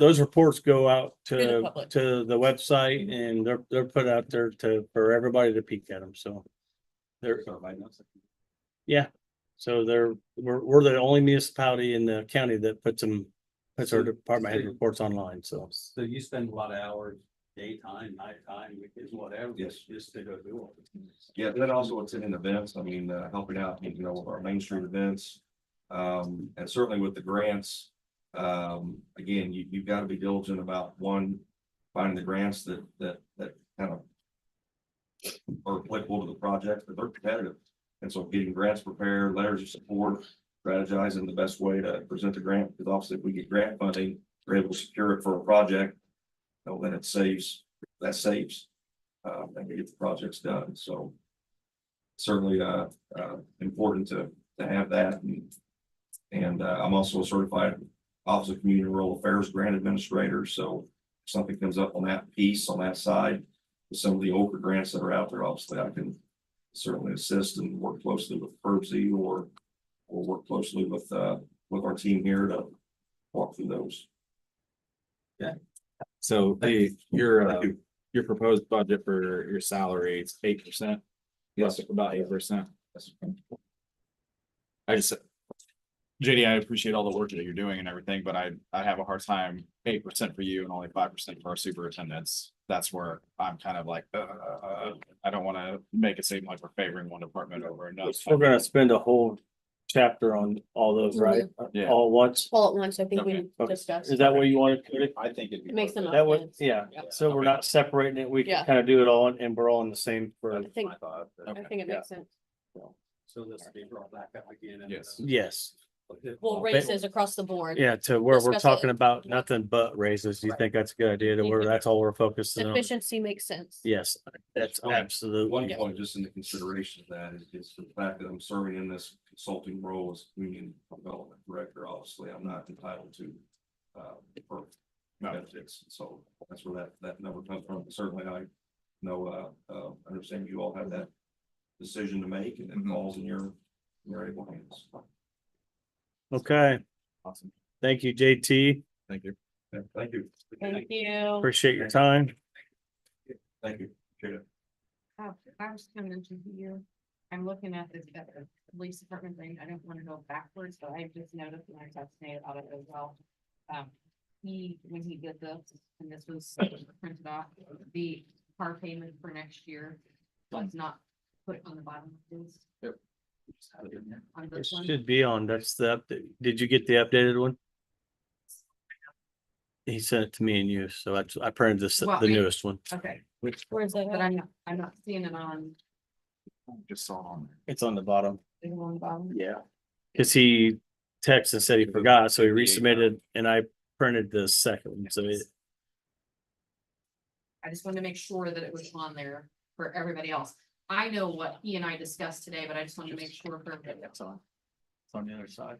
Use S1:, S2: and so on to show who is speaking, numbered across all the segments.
S1: those reports go out
S2: To the
S1: to,
S2: public.
S1: to the website and they're, they're put out there to, for everybody to peek at them, so. They're, so they're, we're, we're the only municipality in the county that puts them, puts our department head reports online, so.
S3: So you spend a lot of hours, daytime, nighttime, weekends, whatever,
S4: Yes.
S3: just, just to go do it.
S4: Yeah, but then also it's in events, I mean, uh, helping out, you know, with our mainstream events. Um, and certainly with the grants, um, again, you, you've got to be diligent about one, finding the grants that, that, that kind of are applicable to the project, but they're competitive. And so getting grants prepared, letters of support, strategizing the best way to present the grant, because obviously if we get grant funding, we're able to secure it for a project. you know, Then it saves, that saves, uh, and we get the projects done, so certainly uh uh important to to have that and. And uh, I'm also a certified Office of Community and Rural Affairs Grant Administrator, so if something comes up on that piece, on that side. with Some of the older grants that are out there, obviously, I can certainly assist and work closely with Herbsy or. Or work closely with uh with our team here to walk through those.
S5: So the, your, uh, your proposed budget for your salary is eight percent? Yes, about eight percent. I just. JD, I appreciate all the work that you're doing and everything, but I, I have a hard time, eight percent for you and only five percent for our superintendents. That's where I'm kind of like, uh, I don't wanna make it seem like we're favoring one department over another.
S1: We're gonna spend a whole chapter on all those, right?
S2: Mm-hmm.
S1: Uh,
S5: Yeah.
S1: All at once.
S2: All at once, I think we
S1: Okay.
S2: discussed.
S1: Is that what you want to,
S3: I think it'd be.
S2: It makes them
S3: perfect.
S1: that way,
S2: sense.
S1: yeah,
S2: Yeah.
S1: so we're not separating it, we can
S2: Yeah.
S1: kind of do it all and we're all in the same for,
S2: I think,
S3: I thought, but-
S2: I think it
S1: yeah.
S2: makes sense.
S3: So this will be brought back up again. and,
S5: Yes.
S3: uh,
S1: yes.
S2: Well, raises across the board.
S1: Yeah, to where we're
S2: Discuss it.
S1: talking about nothing but raises, you
S2: Right.
S1: think that's a good idea to where
S2: Mhm.
S1: that's all we're focusing on?
S2: Sufficiency makes sense.
S1: Yes, that's
S4: One- One
S1: absolutely,
S4: point, just in the consideration of that is, is the fact that I'm serving in this consulting role as community development director, obviously, I'm not entitled to. Uh, for benefits, so that's where that, that number comes from, certainly I know, uh, uh, understand you all have that. Decision to make and it
S5: Mhm.
S4: falls in your, your able hands.
S1: okay,
S5: Awesome,
S1: thank you, JT,
S5: thank you.
S4: Yeah, Thank you.
S2: Thank you.
S1: appreciate your time.
S4: Thank you. Appreciate it.
S6: Oh, I was coming to you. I'm looking at this, at the police department thing. I don't wanna go backwards, but I just noticed when I talked to Nate about it as well. Um, he, when he did this, and this was printed off, the car payment for next year was not put on the bottom of this,
S3: Just have it in there.
S6: on
S1: It
S6: this one.
S1: should be on, that's the, update. did you get the updated one? He sent it to me and you, so I, I printed this,
S6: Well,
S1: the
S6: I-
S1: newest one,
S6: Okay,
S2: Where's that?
S6: but
S2: at?
S6: I'm not, I'm not seeing it on,
S5: Just saw it on there.
S1: it's on the bottom,
S6: it's on the bottom.
S1: yeah. Cause he texted and said he forgot, so he resubmitted and I printed the second, one. so it,
S6: I just wanted to make sure that it was on there for everybody else. I know what he and I discussed today, but I just wanted to make sure for everybody else.
S3: It's on the other side.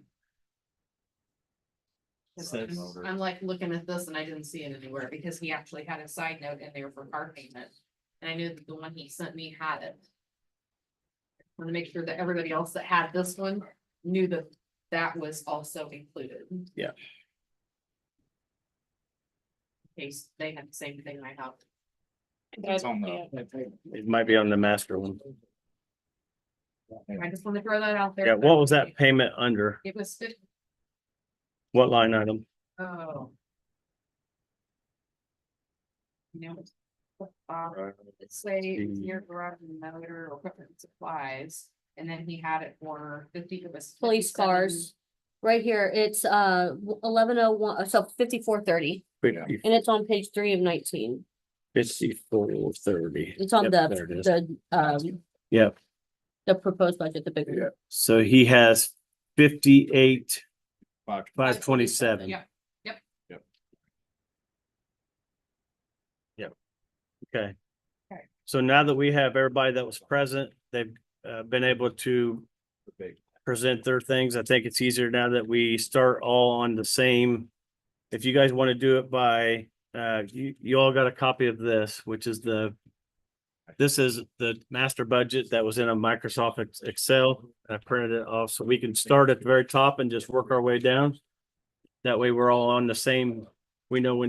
S6: Cause
S1: Says-
S6: I'm- I'm like looking at this and I didn't see it anywhere because he actually had a side note in there for car payment. And I knew that the one he sent me had it. Want to make sure that everybody else that had this one knew that that was also included.
S1: Yeah.
S6: In case they had the same thing I have.
S5: It's on the-
S1: it might be on the master one.
S6: I just want to throw that out there.
S1: Yeah, what was that payment under?
S6: It was fifty,
S1: What line item?
S6: oh. You know, it's- uh, Let's say it's
S1: Mm.
S6: near garage and motor or equipment and supplies, and then he had it for fifty, it was.
S2: Police cars. Right here, it's uh eleven oh one, so fifty-four thirty,
S1: Fifty,
S2: and it's on page three of nineteen.
S1: fifty-four, thirty.
S2: It's on
S1: Yep,
S2: the,
S1: there it is.
S2: the, um.
S1: Yep.
S2: The proposed budget, the big one.
S1: So he has fifty-eight,
S5: Five.
S1: five twenty-seven.
S6: Yeah,
S1: Okay.
S6: Okay.
S1: So now that we have everybody that was present, they've uh, been able to present their things. I think it's easier now that we start all on the same. If you guys want to do it by, uh, you, you all got a copy of this, which is the, this is the master budget that was in a Microsoft Ex- Excel. I printed it off, so we can start at the very top and just work our way down. That way we're all on the same we know when to